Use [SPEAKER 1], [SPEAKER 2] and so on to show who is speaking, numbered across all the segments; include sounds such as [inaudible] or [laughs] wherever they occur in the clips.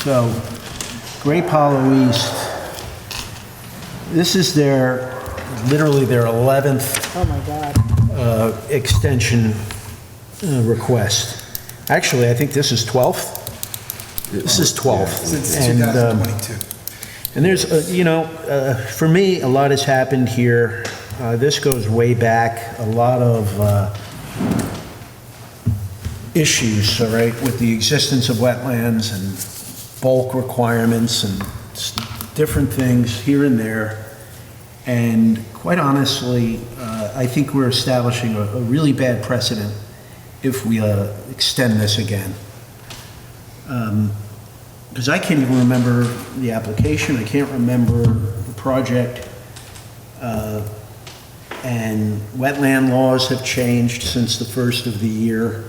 [SPEAKER 1] So, Grape Hollow East, this is their, literally their 11th
[SPEAKER 2] Oh, my God.
[SPEAKER 1] uh, extension uh, request. Actually, I think this is 12th. This is 12th.
[SPEAKER 3] Since
[SPEAKER 1] And, um,
[SPEAKER 3] 2022.
[SPEAKER 1] And there's, uh, you know, uh, for me, a lot has happened here. Uh, This goes way back, a lot of uh, issues, all right, with the existence of wetlands and bulk requirements and s- different things here and there. And quite honestly, uh, I think we're establishing a a really bad precedent if we uh, extend this again. Because I can't even remember the application, I can't remember the project. uh, And wetland laws have changed since the first of the year.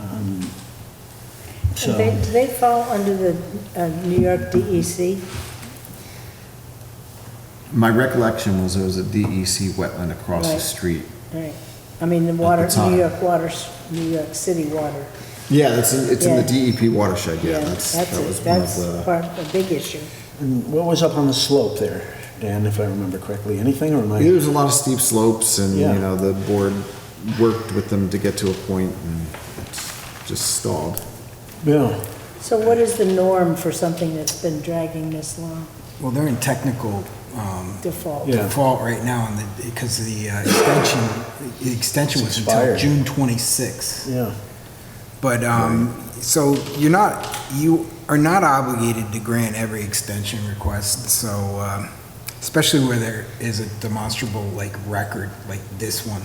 [SPEAKER 1] Um,
[SPEAKER 2] Do
[SPEAKER 1] So,
[SPEAKER 2] they, do they fall under the uh, New York DEC?
[SPEAKER 4] My recollection was there was a DEC wetland across the
[SPEAKER 2] Right.
[SPEAKER 4] street.
[SPEAKER 2] Right. I mean, the water, New
[SPEAKER 4] time.
[SPEAKER 2] York water, New York City water.
[SPEAKER 4] Yeah, that's in, it's in the
[SPEAKER 2] Yeah.
[SPEAKER 4] DEP watershed, yeah, that's, that
[SPEAKER 2] a-
[SPEAKER 4] was one of
[SPEAKER 2] That's
[SPEAKER 4] the,
[SPEAKER 2] part of the big issue.
[SPEAKER 1] and what was up on the slope there, Dan, if I remember correctly? Anything or am
[SPEAKER 4] Yeah,
[SPEAKER 1] I?
[SPEAKER 4] there's a lot of steep slopes and, you
[SPEAKER 1] Yeah.
[SPEAKER 4] know, the board worked with them to get to a point and it's just stalled.
[SPEAKER 1] Yeah.
[SPEAKER 2] So what is the norm for something that's been dragging this long,
[SPEAKER 3] Well, they're in technical um,
[SPEAKER 2] default?
[SPEAKER 1] Yeah.
[SPEAKER 3] default right now, and the- because the uh, extension, the extension was until
[SPEAKER 1] Expired.
[SPEAKER 3] June 26th.
[SPEAKER 1] Yeah.
[SPEAKER 3] But, um, so you're not, you are not obligated to grant every extension request, so, um, especially where there is a demonstrable, like, record, like this one.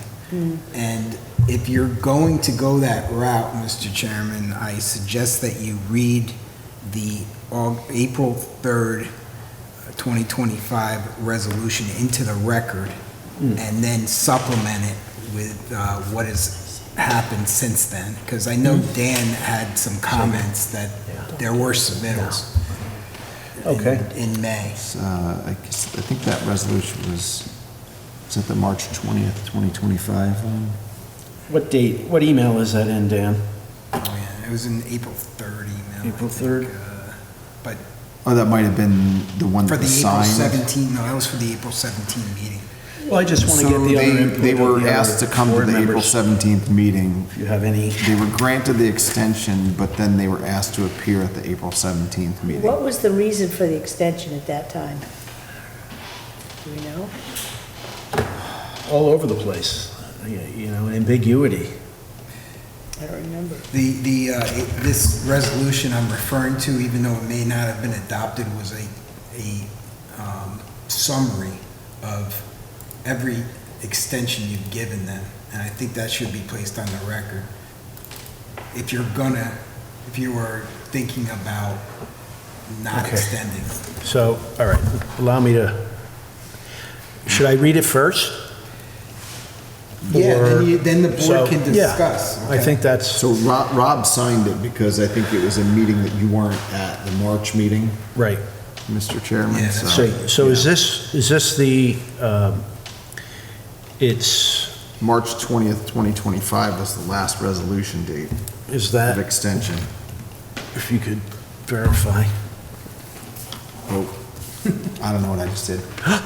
[SPEAKER 3] And if you're going to go that route, Mr. Chairman, I suggest that you read the Au- April 3rd, 2025 resolution into the record, and then supplement it with uh, what has happened since then, because I know Dan had some comments that there were submittals. in-
[SPEAKER 1] Okay.
[SPEAKER 3] In May.
[SPEAKER 4] It's, uh, I guess, I think that resolution was, was that the March twentieth, twenty twenty-five?
[SPEAKER 1] What date, what email is that in, Dan?
[SPEAKER 3] Oh, yeah, it was in April 3rd email. I
[SPEAKER 1] April
[SPEAKER 3] think,
[SPEAKER 1] 3rd.
[SPEAKER 3] uh,
[SPEAKER 4] Oh, that might have been the one
[SPEAKER 3] For
[SPEAKER 4] that
[SPEAKER 3] the
[SPEAKER 4] was
[SPEAKER 3] April
[SPEAKER 4] signed.
[SPEAKER 3] 17, no, that was for the April 17 meeting.
[SPEAKER 1] Well, I just want to
[SPEAKER 4] So
[SPEAKER 1] get the other
[SPEAKER 4] they,
[SPEAKER 1] input.
[SPEAKER 4] they
[SPEAKER 1] of
[SPEAKER 4] were
[SPEAKER 1] the other
[SPEAKER 4] asked to come to
[SPEAKER 1] board
[SPEAKER 4] the April
[SPEAKER 1] members.
[SPEAKER 4] seventeenth meeting.
[SPEAKER 1] If you have any.
[SPEAKER 4] They were granted the extension, but then they were asked to appear at the April seventeenth meeting.
[SPEAKER 2] What was the reason for the extension at that time? Do we know?
[SPEAKER 1] all over the place, you you know, ambiguity.
[SPEAKER 2] I don't remember.
[SPEAKER 3] The, the, uh, it- this resolution I'm referring to, even though it may not have been adopted, was a, a um, summary of every extension you've given them, and I think that should be placed on the record. If you're gonna, if you were thinking about not
[SPEAKER 1] Okay.
[SPEAKER 3] extending.
[SPEAKER 1] So, all right, allow me to, should I read it first?
[SPEAKER 3] Yeah,
[SPEAKER 1] Or-
[SPEAKER 3] then you, then the
[SPEAKER 1] So,
[SPEAKER 3] board can
[SPEAKER 1] yeah,
[SPEAKER 3] discuss.
[SPEAKER 1] I
[SPEAKER 3] okay.
[SPEAKER 1] think that's
[SPEAKER 4] So Rob, Rob signed it because I think it was a meeting that you weren't at, the March meeting,
[SPEAKER 1] right.
[SPEAKER 4] Mr. Chairman,
[SPEAKER 3] Yeah,
[SPEAKER 4] so.
[SPEAKER 1] So, so is this, is this the, um, it's,
[SPEAKER 4] March twentieth, twenty twenty-five was the last resolution date
[SPEAKER 1] is
[SPEAKER 4] of
[SPEAKER 1] that,
[SPEAKER 4] extension.
[SPEAKER 1] if you could verify?
[SPEAKER 4] Oh, I don't know what I just did.
[SPEAKER 3] You wanna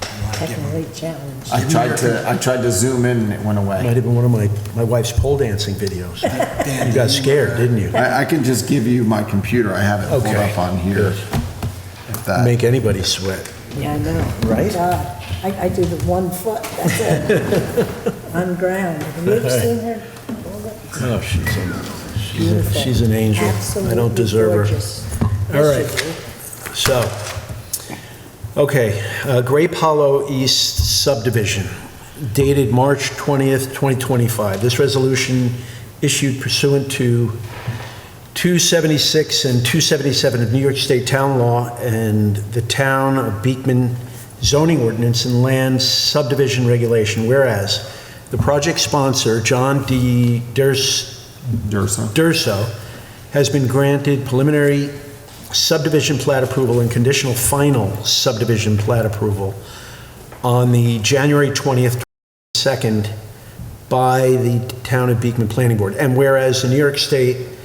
[SPEAKER 3] give 'em-
[SPEAKER 2] Technically challenged.
[SPEAKER 4] I tried to, I tried to zoom in and it went
[SPEAKER 1] Might
[SPEAKER 4] away.
[SPEAKER 1] have been one of my, my wife's pole dancing videos.
[SPEAKER 3] Dan,
[SPEAKER 1] You got
[SPEAKER 3] did you,
[SPEAKER 1] scared,
[SPEAKER 3] uh,
[SPEAKER 1] didn't you?
[SPEAKER 4] I, I can just give you my computer, I have it pulled
[SPEAKER 1] Okay,
[SPEAKER 4] up on here.
[SPEAKER 1] good.
[SPEAKER 4] If that,
[SPEAKER 1] Make anybody sweat.
[SPEAKER 2] Yeah, I know.
[SPEAKER 1] Right?
[SPEAKER 2] God, I, I do the one foot, that's it.
[SPEAKER 4] [laughs]
[SPEAKER 2] On ground. Have you ever seen her?
[SPEAKER 1] Oh, she's a- she's a,
[SPEAKER 2] Beautiful.
[SPEAKER 1] she's an angel. I don't
[SPEAKER 2] Absolutely
[SPEAKER 1] deserve her.
[SPEAKER 2] gorgeous.
[SPEAKER 1] All
[SPEAKER 2] Yes,
[SPEAKER 1] right.
[SPEAKER 2] you do.
[SPEAKER 1] So, okay, uh, Grape Hollow East subdivision dated March 20th, 2025. This resolution issued pursuant to 276 and 277 of New York State Town Law and the Town of Beekman zoning ordinance and land subdivision regulation, whereas the project sponsor, John D. Durs-
[SPEAKER 4] Dursa.
[SPEAKER 1] Durso has been granted preliminary subdivision plat approval and conditional final subdivision plat approval on the January 20th, 2nd by the Town of Beekman Planning Board. And whereas the New York State